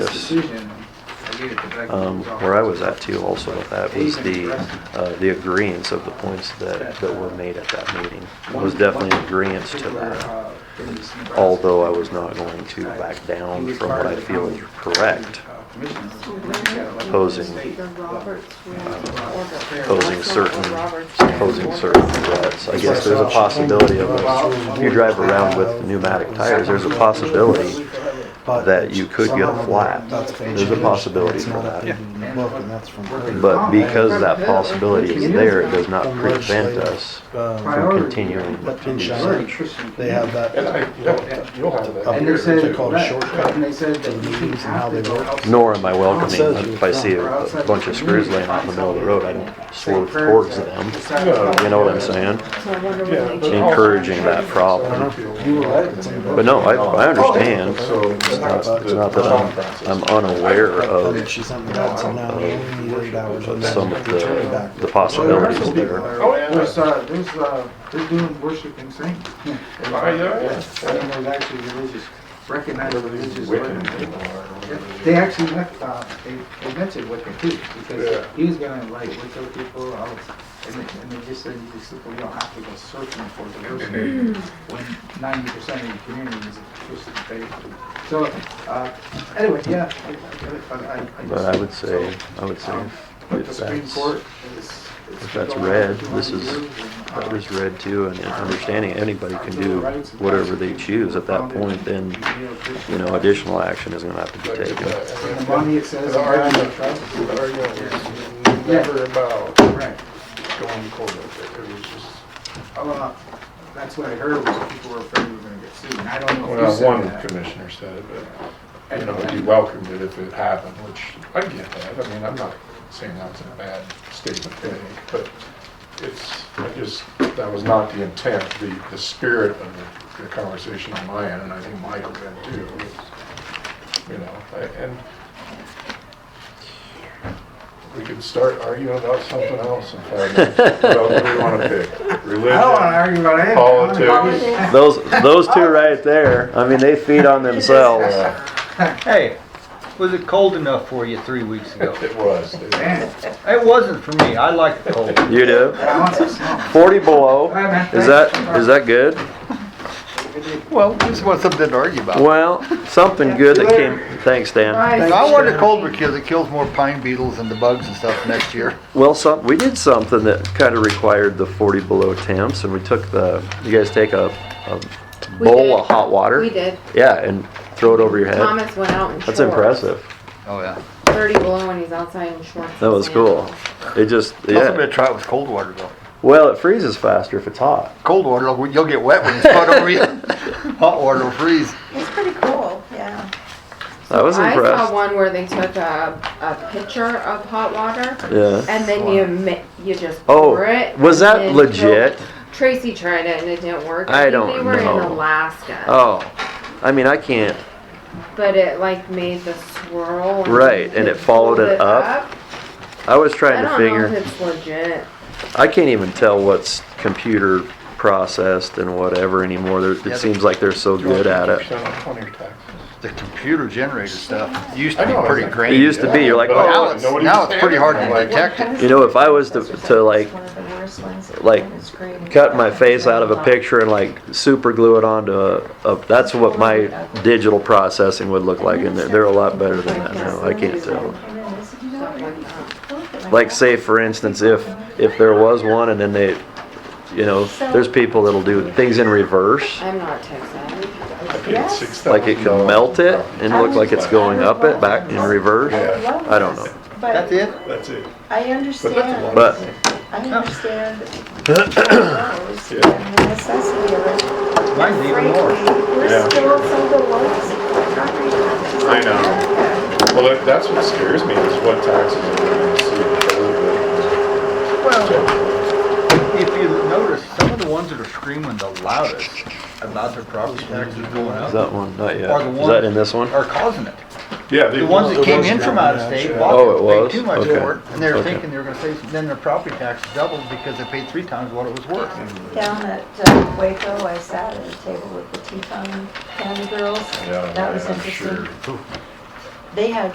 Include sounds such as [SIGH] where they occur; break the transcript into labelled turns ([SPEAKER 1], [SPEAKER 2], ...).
[SPEAKER 1] decision, I gave it to Becky.
[SPEAKER 2] Um, Where I was at too also with that was the, uh, the agreeance of the points that, that were made at that meeting. It was definitely an agreeance to that, although I was not going to back down from what I feel is correct, Opposing.
[SPEAKER 1] Opposing.
[SPEAKER 2] Posing.
[SPEAKER 3] The Roberts rule or the-
[SPEAKER 2] posing certain,
[SPEAKER 3] Roberts rule.
[SPEAKER 2] posing certain threats. I guess there's a possibility of, if you drive around with pneumatic tires, there's a possibility that you could get a flat. There's a possibility for that. But because that possibility is there, it does not prevent us from continuing to do so.
[SPEAKER 4] um, They have that,
[SPEAKER 5] You'll have that.
[SPEAKER 1] And they said,
[SPEAKER 4] They call it a shortcut
[SPEAKER 1] and they said
[SPEAKER 4] to
[SPEAKER 1] that
[SPEAKER 4] the
[SPEAKER 1] you can
[SPEAKER 4] meetings and how
[SPEAKER 1] have
[SPEAKER 4] they
[SPEAKER 1] to go
[SPEAKER 4] work.
[SPEAKER 1] outside.
[SPEAKER 2] Nor am I welcoming, if I see a bunch of screws laying out in the middle of the road, I don't swerve towards them. You know what I'm saying?
[SPEAKER 3] So I wonder
[SPEAKER 5] Yeah,
[SPEAKER 3] when they
[SPEAKER 5] but-
[SPEAKER 3] change
[SPEAKER 2] Encouraging that problem. But no, I, I understand.
[SPEAKER 5] So
[SPEAKER 2] It's not, it's not that I'm, I'm unaware
[SPEAKER 4] and
[SPEAKER 2] of,
[SPEAKER 4] then she sent me that, so now we only need eight hours.
[SPEAKER 2] of
[SPEAKER 4] and then
[SPEAKER 2] some of the,
[SPEAKER 4] return it back.
[SPEAKER 2] the possibilities there.
[SPEAKER 5] Oh, yeah.
[SPEAKER 1] There's, uh, there's, uh, they're doing worshiping saints.
[SPEAKER 5] Oh, yeah, yeah.
[SPEAKER 1] I mean, there's actually religious, recognized religious.
[SPEAKER 5] Wiccan
[SPEAKER 1] organizations.
[SPEAKER 5] people are.
[SPEAKER 1] They actually went, uh, they, they mentioned Wicca too, because
[SPEAKER 5] Yeah.
[SPEAKER 1] he was gonna invite Wicca people out, and they, and they just said, you just simply don't have to go searching for
[SPEAKER 2] [LAUGHS]
[SPEAKER 1] diversity
[SPEAKER 2] Mm-hmm.
[SPEAKER 1] when ninety percent of the community is Christian faith. So, uh, anyway, yeah, I, I, I- I. I
[SPEAKER 2] But I would
[SPEAKER 1] just-
[SPEAKER 2] say, I would say,
[SPEAKER 1] um, But the
[SPEAKER 2] if
[SPEAKER 1] Supreme
[SPEAKER 2] that's,
[SPEAKER 1] Court is. is
[SPEAKER 2] if that's
[SPEAKER 1] going on
[SPEAKER 2] read,
[SPEAKER 1] for
[SPEAKER 2] this is-
[SPEAKER 1] 200 years, and, uh,
[SPEAKER 2] that was read too, and understanding anybody can do whatever they choose at that point, then, you know, additional action is gonna have to be taken.
[SPEAKER 1] In the money it says.
[SPEAKER 5] The argument,
[SPEAKER 1] Right.
[SPEAKER 5] the argument was never about
[SPEAKER 1] Right. Oh,
[SPEAKER 5] going to court with it. It was just.
[SPEAKER 1] Well, that's what I heard was people were afraid we were gonna get sued, and I don't know if you
[SPEAKER 5] Well,
[SPEAKER 1] said
[SPEAKER 5] one
[SPEAKER 1] that.
[SPEAKER 5] commissioner said it, but, you
[SPEAKER 1] And-
[SPEAKER 5] know,
[SPEAKER 1] and-
[SPEAKER 5] he welcomed it if it happened, which I get that. I mean, I'm not saying that was a bad statement to make, but it's, I just, that was not the intent, the, the spirit of the- the conversation on my end, and I think Michael did too. was, You know, I- and we could start arguing about something else in five minutes. About What do we want to pick?
[SPEAKER 1] I don't wanna
[SPEAKER 5] Religion,
[SPEAKER 1] argue about anything.
[SPEAKER 5] Politics.
[SPEAKER 3] Politics.
[SPEAKER 2] Those, those two right there, I mean, they feed on themselves.
[SPEAKER 5] Yeah,
[SPEAKER 6] Hey, was it cold enough for you three weeks ago?
[SPEAKER 5] It was. It-
[SPEAKER 1] Man,
[SPEAKER 6] It wasn't for me. I like the cold.
[SPEAKER 2] You do?
[SPEAKER 1] I want some snow.
[SPEAKER 2] Forty below, is that, is that good?
[SPEAKER 7] Well, we just want something to argue about.
[SPEAKER 2] Well, something good that came, thanks, Dan.
[SPEAKER 3] Right.
[SPEAKER 7] I want a cold because it kills more pine beetles and the bugs and stuff next year.
[SPEAKER 2] Well, some, we did something that kind of required the forty below temps, and we took the, you guys take a, a
[SPEAKER 3] We
[SPEAKER 2] bowl of
[SPEAKER 3] did.
[SPEAKER 2] hot water?
[SPEAKER 3] We did.
[SPEAKER 2] Yeah, and throw it over your head.
[SPEAKER 3] Thomas went out in shorts.
[SPEAKER 2] That's impressive.
[SPEAKER 7] [LAUGHS] Oh, yeah.
[SPEAKER 3] Thirty below when he's outside in shorts.
[SPEAKER 2] That was
[SPEAKER 3] and
[SPEAKER 2] cool. It just,
[SPEAKER 7] Also, better
[SPEAKER 2] yeah.
[SPEAKER 7] try it with cold water though.
[SPEAKER 2] Well, it freezes faster if it's hot.
[SPEAKER 7] Cold water, you'll- you'll get wet when it's put over you. [LAUGHS] Hot water will freeze.
[SPEAKER 8] It's pretty cool, yeah.
[SPEAKER 2] I was
[SPEAKER 3] I saw
[SPEAKER 2] impressed.
[SPEAKER 3] one where they took a, a pitcher of hot water
[SPEAKER 2] Yeah.
[SPEAKER 3] and then you mi- you just
[SPEAKER 2] Oh,
[SPEAKER 3] pour it.
[SPEAKER 2] was
[SPEAKER 3] and
[SPEAKER 2] that
[SPEAKER 3] then
[SPEAKER 2] legit?
[SPEAKER 3] fill it. Tracy tried it and it didn't work.
[SPEAKER 2] I
[SPEAKER 3] think
[SPEAKER 2] don't
[SPEAKER 3] They were in
[SPEAKER 2] know.
[SPEAKER 3] Alaska.
[SPEAKER 2] Oh, I mean, I can't,
[SPEAKER 3] But it like made the swirl. and
[SPEAKER 2] Right,
[SPEAKER 3] you
[SPEAKER 2] and it
[SPEAKER 3] could
[SPEAKER 2] followed
[SPEAKER 3] hold
[SPEAKER 2] it up. I was
[SPEAKER 3] I
[SPEAKER 2] trying to
[SPEAKER 3] don't
[SPEAKER 2] figure.
[SPEAKER 3] know if it's legit.
[SPEAKER 2] I can't even tell what's computer processed and whatever anymore. There, it seems like they're so good at it.
[SPEAKER 5] 50% off on your taxes.
[SPEAKER 7] The computer generated stuff used
[SPEAKER 5] I
[SPEAKER 7] to be
[SPEAKER 5] know,
[SPEAKER 7] pretty
[SPEAKER 5] it's-
[SPEAKER 7] grainy.
[SPEAKER 2] It used to be, you're like, "Oh,
[SPEAKER 5] But
[SPEAKER 7] Now it's,
[SPEAKER 5] nobody's
[SPEAKER 7] now it's pretty hard
[SPEAKER 5] saying
[SPEAKER 7] to
[SPEAKER 5] anything.
[SPEAKER 7] detect it.
[SPEAKER 2] You know, if I was to, to like
[SPEAKER 8] One of the worst ones.
[SPEAKER 2] like,
[SPEAKER 8] It's great.
[SPEAKER 2] cut my face out of a picture and like super glue it onto a, a that's what my digital processing would look like, and they're, they're a lot better than that now. I can't tell.
[SPEAKER 8] And then they said, "You know, really, look at my
[SPEAKER 2] Like,
[SPEAKER 8] back."
[SPEAKER 2] say for instance, if if there was one, and then they, you know, there's people that'll do things in reverse,
[SPEAKER 3] I'm not tech savvy.
[SPEAKER 5] I paid
[SPEAKER 8] Yes.
[SPEAKER 5] $6,000
[SPEAKER 2] like it can melt it and look like it's going up it back in reverse. I don't know.
[SPEAKER 8] But
[SPEAKER 6] That's it?
[SPEAKER 5] That's it.
[SPEAKER 8] I understand.
[SPEAKER 2] But-
[SPEAKER 8] I
[SPEAKER 5] [COUGHS]
[SPEAKER 8] understand those and the necessity of it.
[SPEAKER 6] Mine's even more.
[SPEAKER 8] Frankly,
[SPEAKER 5] Yeah.
[SPEAKER 8] we're still some of the lowest property taxes in
[SPEAKER 5] I know.
[SPEAKER 8] America.
[SPEAKER 5] Well, that- that's what scares me is what taxes are going to see. because
[SPEAKER 6] Well, if you notice, some of the ones that are screaming the loudest about their property taxes going
[SPEAKER 2] Is
[SPEAKER 6] up
[SPEAKER 2] that one? Not yet.
[SPEAKER 6] are the
[SPEAKER 2] Is that in
[SPEAKER 6] ones
[SPEAKER 2] this one?
[SPEAKER 6] are causing it.
[SPEAKER 5] of the- Yeah. they-
[SPEAKER 6] The ones that
[SPEAKER 5] the
[SPEAKER 6] came in from out of state
[SPEAKER 2] Oh, it
[SPEAKER 6] bought it,
[SPEAKER 2] was?
[SPEAKER 6] paid too much
[SPEAKER 2] Okay.
[SPEAKER 6] for it, and they were
[SPEAKER 2] Okay.
[SPEAKER 6] thinking they were gonna pay, then their property tax doubled because they paid three times what it was worth.
[SPEAKER 8] Down at uh, Waco, I sat at a table with the Teton County girls.
[SPEAKER 5] Yeah,
[SPEAKER 8] That was
[SPEAKER 5] I'm sure.
[SPEAKER 8] interesting. they had